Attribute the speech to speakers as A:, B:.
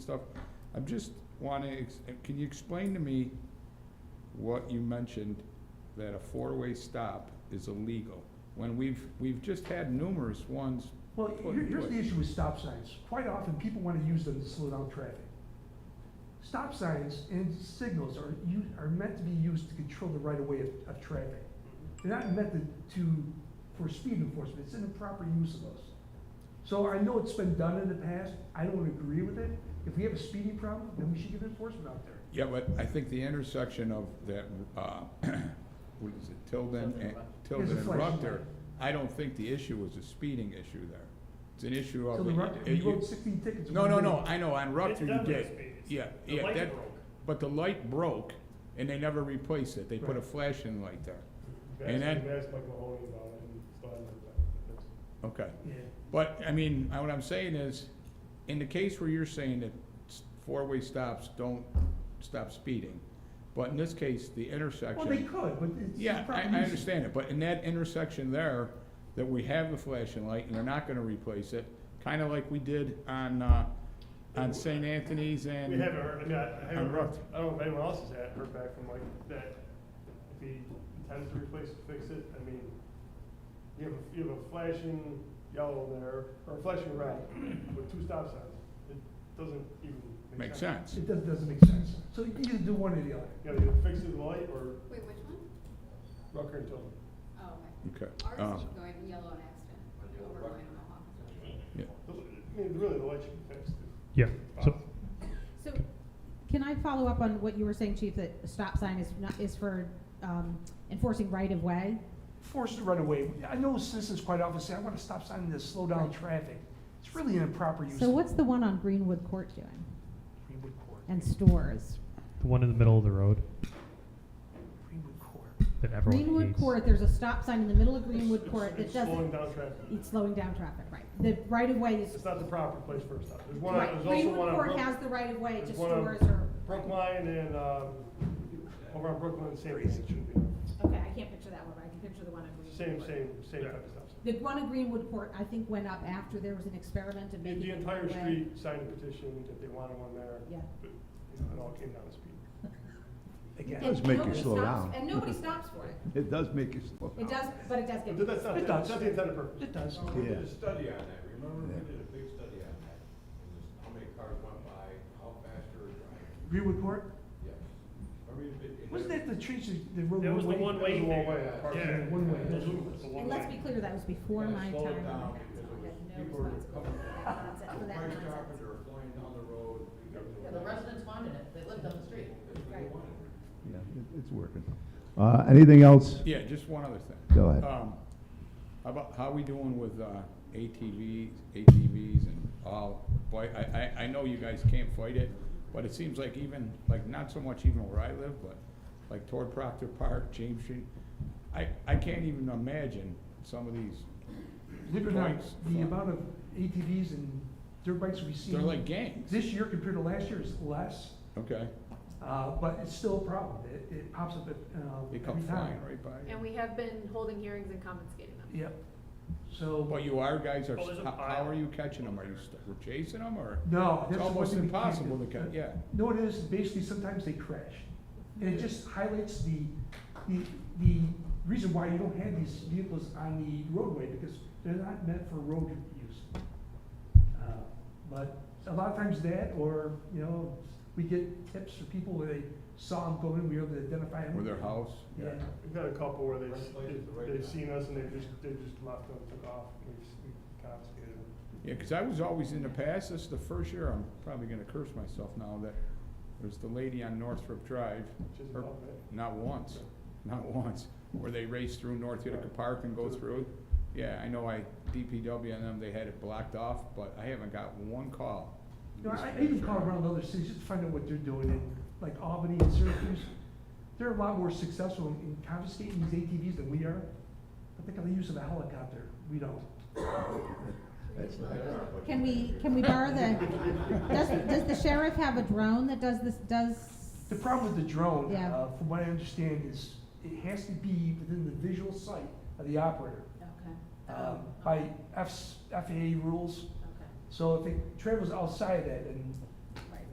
A: stuff. I'm just wanna, ex- can you explain to me what you mentioned, that a four-way stop is illegal? When we've, we've just had numerous ones.
B: Well,
A: put
B: here-
A: in
B: here's the
A: place.
B: issue with stop signs. Quite often, people want to use them to slow down traffic. Stop signs and signals are, u- are meant to be used to control the right-of-way of, of traffic. They're not meant to, to, for speed enforcement. It's an improper use of those. So I know it's been done in the past. I don't agree with it. If we have a speeding problem, then we should give enforcement out there.
A: Yeah, but I think the intersection of that, uh, what is it, Tilden and, Tilden
B: It's a
A: and
B: flashing light.
A: Rutger, I don't think the issue is a speeding issue there. It's an issue
B: So
A: of.
B: the,
A: it-
B: right-
A: it-
B: we wrote sixteen tickets.
A: No,
B: one
A: no,
B: day.
A: no, I know, on Rutger you
C: done with
A: did.
C: speed.
A: Yeah,
C: The
A: yeah,
C: light
A: that,
C: broke.
A: but the light broke and they never replaced it. They put a
B: Right.
A: flashing light there. And
C: That's,
A: then-
C: that's Mike Mahoney about it, and it's done, but it's-
A: Okay.
B: Yeah.
A: But, I mean, I- what I'm saying is, in the case where you're saying that s- four-way stops don't stop speeding, but in this case, the
B: Well,
A: intersection.
B: they could, but it's.
A: Yeah, I,
B: improper
A: I
B: use.
A: understand it, but in that intersection there, that we have the flashing light and they're not gonna replace it, kinda like we did on, uh, on St. Anthony's
C: We
A: and.
C: haven't heard, I mean, I I
A: I'm
C: haven't heard,
A: rough.
C: I don't know if anyone else has had, heard back from Mike that if he intends to replace it, fix it, I mean, you have, a- you have a flashing yellow there, or a flashing red with two stop signs. It doesn't even make
A: Makes
C: sense.
A: sense.
B: It does doesn't make sense. So you either do one or the other.
C: You gotta either fix the light or
D: Wait, which one?
C: Rucker and Tilden.
D: Oh,
A: Okay.
D: okay. Ours
A: Uh,
D: is going yellow and accident, over going on Mohawk.
A: yeah.
C: The- I mean, really, the light should be fixed.
E: Yeah,
C: if
E: so,
C: possible.
F: So, can I follow up on what you were saying, Chief, that a stop sign is not, is for, um, enforcing right of way?
B: Forced to run away. I know citizens quite often say, I want to stop sign this, slow down traffic. It's really an improper use.
F: So
B: of
F: what's the one on Greenwood Court doing?
B: Greenwood Court.
F: And stores?
E: the one in the middle of the road
B: Greenwood Court.
E: that everyone
F: Greenwood
E: hates.
F: Court, there's a stop sign in the middle of Greenwood
C: It's-
F: Court that
C: It's slowing
F: doesn't,
C: down traffic.
F: it's slowing down traffic, right? The right of way is,
C: It's not the proper place for a stop. There's one,
F: right,
C: there's also one
F: Greenwood
C: on
F: Court
C: Brook-
F: has the right of way to
C: there's one on
F: stores or.
C: Brookline and, um, over on Brooklyn and St. Anthony's, it shouldn't be.
F: Okay, I can't picture that one, but I can picture the one on Greenwood
C: Same,
F: Court.
C: same, same type of stuff.
F: The one on Greenwood Court, I think, went up after there was an experiment of
C: The
F: making.
C: the
F: it
C: entire
F: right of way.
C: street signed a petition that they wanted one there,
F: Yeah.
C: but you know, it all came down to speed.
B: Again.
G: does make you
F: Nobody
G: slow
F: stops-
G: down.
F: And nobody stops for it.
G: It does make you slow.
F: It does, but it does get.
C: But that's not,
B: It
C: the-
B: does.
C: that's not the intended purpose.
B: It does.
H: We did
G: Yeah.
H: a study on that, remember,
G: Yeah.
H: we did a big study on that, and just how many cars went by, how fast they were driving,
B: Greenwood Court?
H: yes. I mean, it- it-
B: Wasn't that the change that the road?
C: That was the
B: one-way?
C: one-way
B: That was the
C: thing.
B: one-way.
H: Yeah.
B: Parking
C: Yeah.
B: One way.
C: It's a long
F: And let's be
C: way.
F: clear, that was before
H: Yeah,
F: my time.
H: slow it
F: on the
H: down
F: council.
H: because it was-
F: I had no
H: people were
F: responsibility for that nonsense- for that
H: Price
F: nonsense.
H: shoppers are flying down the road.
I: Yeah, the residents wanted it, they lived on the street.
H: That's what they
F: Right.
H: wanted.
G: Yeah, it- it's working. Uh, anything else?
A: Yeah, just one other thing.
G: Go ahead.
A: Um, How about, how we doing with uh, ATVs, ATVs and all, boy, I, I, I know you guys can't fight it, but it seems like even, like, not so much even where I live, but like toward Proctor Park, James Street, I, I can't even imagine some of these,
B: Believe it or not,
A: Points.
B: the amount of ATVs and dirt bikes we see
A: they're like gangs,
B: this year compared to last year is less,
A: okay?
B: uh, but it's still a problem. It, it pops up at, uh,
A: They
B: every
A: come
B: time.
A: flying right by you.
D: And we have been holding hearings and confiscating them.
B: Yep. So.
A: But you are, guys, are,
C: Oh, there's a
A: how, how
C: pile.
A: are you catching them? Are you st- we're chasing them, or?
B: No,
A: It's
B: that's one
A: almost
B: thing we can't
A: impossible
B: do.
A: to catch, yeah.
B: No, it is, basically, sometimes they crash. And it just highlights the, the, the reason why you don't have these vehicles on the roadway, because they're not meant for road use. Uh, But a lot of times that, or, you know, we get tips from people where they saw them going, we were able to identify them.
A: Or their house?
B: Yeah,
C: We've had a couple where they've,
H: Right place at the right
C: they've
H: time.
C: seen us and they've just, they've just left them, took off, and we've, we've confiscated them.
A: Yeah, 'cause I was always in the past, this is the first year, I'm probably gonna curse myself now, that there's the lady on Northrop Drive,
C: Which is
A: Or-
C: about it.
A: not once, not once, where they race through North Utica Park and go through. Yeah, I know I, DPW and them, they had it blocked off, but I haven't got one call.
B: You know, I I even call around other cities just to find out what they're doing, and like Albany and Syracuse, they're a lot more successful in confiscating these ATVs than we are. But they got the use of a helicopter, we don't.
F: Can we, can we borrow the, does, does the sheriff have a drone that does this, does?
B: The problem with the drone,
F: Yeah.
B: uh, from what I understand, is it has to be within the visual sight of the operator,
F: Okay, Oh.
B: um, by F's, FAA rules.
F: okay.
B: So if it travels outside that, and